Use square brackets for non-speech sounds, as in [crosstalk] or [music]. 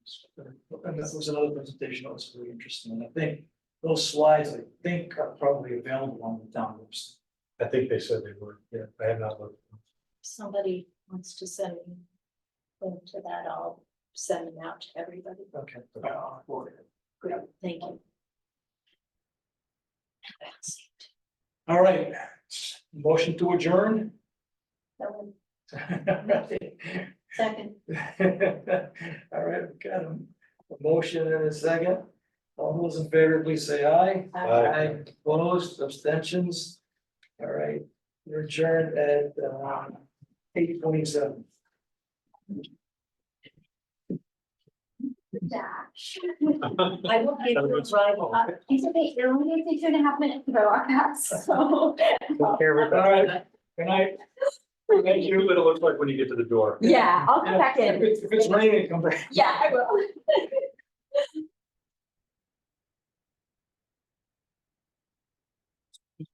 And that was another presentation that was really interesting, and I think those slides, I think, are probably available on the town website. I think they said they were, yeah, I have not looked. somebody wants to send me a link to that, I'll send them out to everybody. Okay. Uh, for it. Great, thank you. That's it. All right, motion to adjourn. [laughs] That one, All Second, right, we got a a motion and a second. All those in favor, please say aye. uh, Opposed, abstentions. All right, we're adjourned at uh, eight twenty-seven. dash. I will give you a ride Uh, up. It's okay, it only takes you two and a half minutes to go on that, [laughs] so. All right, good night. Thank you. what it looks like when you get to the door. Yeah, I'll come back If in. it's- if it's raining, come back. Yeah, I will.